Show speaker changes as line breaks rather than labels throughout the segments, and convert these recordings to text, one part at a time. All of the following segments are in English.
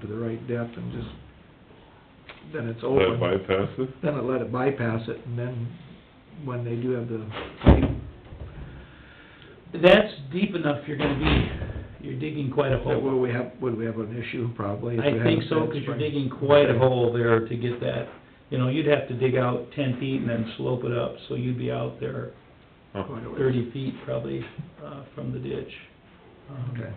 to the right depth and just, then it's
Will that
open.
bypass it?
Then it let it bypass it, and then when they do have the pipe,
That's deep enough, you're gonna be, you're digging quite a
that
hole.
will we have, would we have an issue probably? if we
I
had
think
a
so,
bad
because you're
spring?
digging quite a hole there to get that, you know, you'd have to dig out ten feet and then slope it up, so you'd be out there
Huh.
Quite a ways.
thirty feet probably, uh, from the ditch. Um,
Okay.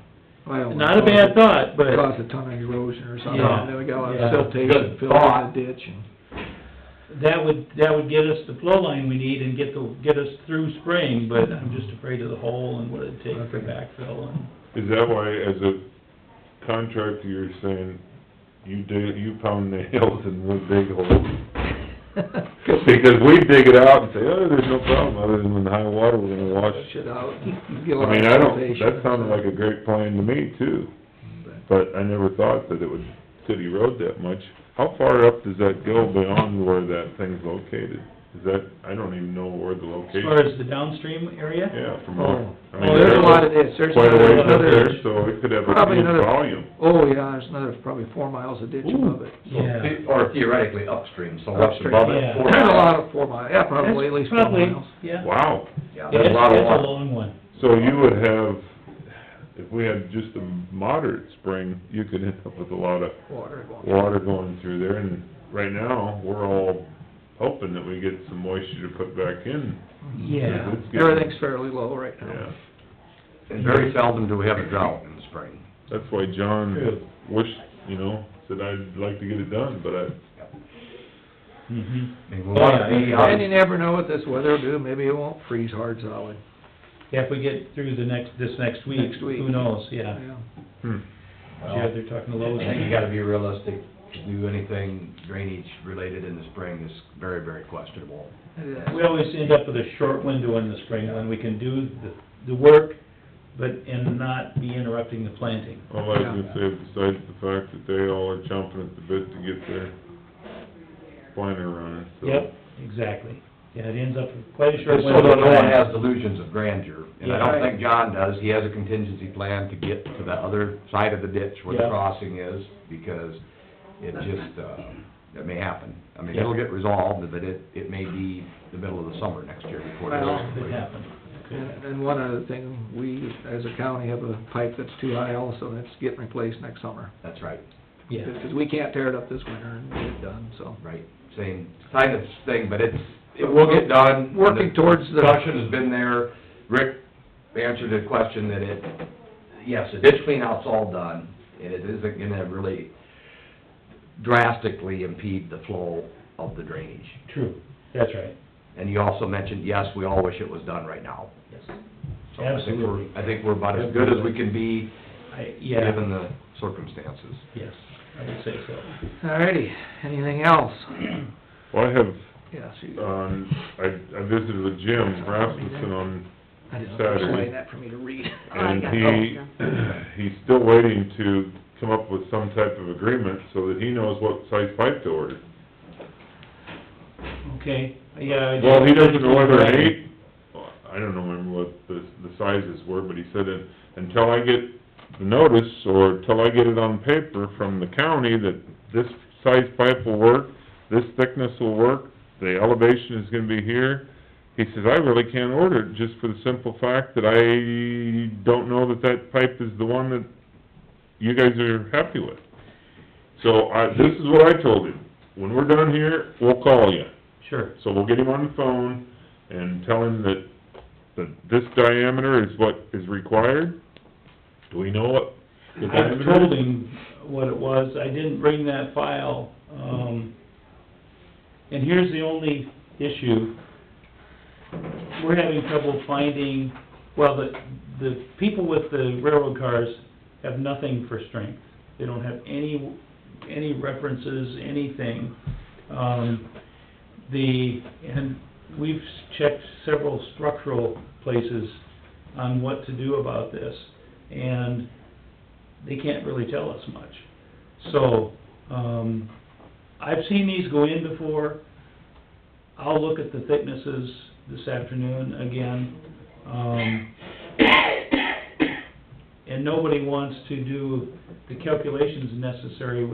Well, I don't wanna
Not a bad
cause-
thought, but,
Cause a ton of erosion or something,
Yeah.
and then we got a lot
Yeah.
of siltation
Good
filled in
thought.
the ditch and.
that would, that would get us the flow line we need and get the, get us through spring, but I'm just afraid of the hole and what it'd take for
Okay.
backfill and,
Is that why, as a contractor, you're saying, you dig, you pound nails and we'll dig holes? Because we dig it out and say, oh, there's no problem, other than when the high water, we're gonna wash.
Push it out.
I mean, I don't, that sounded like a great plan to me too, but I never thought that it would city road that much. How far up does that go beyond where that thing's located? Is that, I don't even know where the
as far
location,
as the downstream area?
yeah, from
Oh,
our. I mean,
Oh, there's a
that's-
lot of this, there's
quite a ways up
another,
there, so it could have a
probably
huge
another-
volume.
oh, yeah, there's another, probably four miles of ditch above it.
So
Yeah.
the- Or theoretically upstream, so what's above
Yeah.
it? four
There's a
miles.
lot of four miles, yeah, probably at
That's
least four
probably-
miles.
Yeah.
Wow,
Yeah,
It's,
there's a
it's
lot of
a
water.
long one.
so you would have, if we had just a moderate spring, you could end up with a lot of
Water going.
water going through there, and right now, we're all hoping that we get some moisture to put back in.
Mm-hmm. Yeah.
It's getting-
Everything's fairly low right now.
Yeah,
And very seldom do we have a drought in the spring.
that's why
Good.
John wished, you know, said I'd like to get it done, but I,
Mhm.
I mean, we wanna be uh, out-
And you never know what this weather will do, maybe it won't freeze hard solid.
Yeah, if we get through the next, this next week,
Next week.
who knows, yeah.
hmm,
Yeah, they're talking to
I
Lowe's.
think you gotta be realistic, to do anything drainage related in the spring is very, very questionable.
We always end up with a short window in the spring when we can do the, the work, but, and not be interrupting the planting.
all I can say, besides the fact that they all are chomping at the bit to get their planter running, so.
Yep, exactly. Yeah, it ends up with quite a short
Just
window.
so that no
of
one
planting.
has delusions of grandeur, and I
Yeah.
don't think John does, he has a contingency plan to get to the other side of the ditch where the
Yeah.
crossing is, because it just, uh, it may happen. I mean,
Yeah.
it'll get resolved, but it, it may be the middle of the summer next year before it is
Well,
Could
completed.
happen.
And, and one other thing, we, as a county, have a pipe that's too high also, and it's getting replaced next summer.
That's right,
Yeah,
Because we can't tear it up this winter and get it done, so.
right, same kind of thing, but it's, it will get done.
Working towards the-
Discussion has been there, Rick answered the question that it, yes, the ditch clean out's all done, and it isn't gonna really drastically impede the flow of the drainage.
true, that's right.
And you also mentioned, yes, we all wish it was done right now.
Yes.
So I think we're-
Absolutely.
I think we're about as good as we can be,
I, yeah,
given the circumstances.
yes, I would say so.
Alrighty, anything else?
Well, I have
Yes, you,
on, I, I visited with Jim Rasmussen on,
I didn't
Saturday.
know, that for me to read.
and he, he's still waiting to come up with some type of agreement so that he knows what size pipe to order.
Okay, yeah. I-
Well, he doesn't know whether an eight, I don't know remember what the, the sizes were, but he said, "Un- until I get the notice, or until I get it on paper from the county that this size pipe will work, this thickness will work, the elevation is gonna be here, he says, I really can't order it, just for the simple fact that I don't know that that pipe is the one that you guys are happy with. So, I, this is what I told him, when we're done here, we'll call you.
Sure,
So we'll get him on the phone and tell him that, that this diameter is what is required. Do we know what the
I
diameter is?
told him what it was, I didn't bring that file, um, and here's the only issue. We're having trouble finding, well, the, the people with the railroad cars have nothing for strength. They don't have any, any references, anything. Um, the, and we've checked several structural places on what to do about this, and they can't really tell us much. So, um, I've seen these go in before. I'll look at the thicknesses this afternoon again. Um, and nobody wants to do the calculations necessary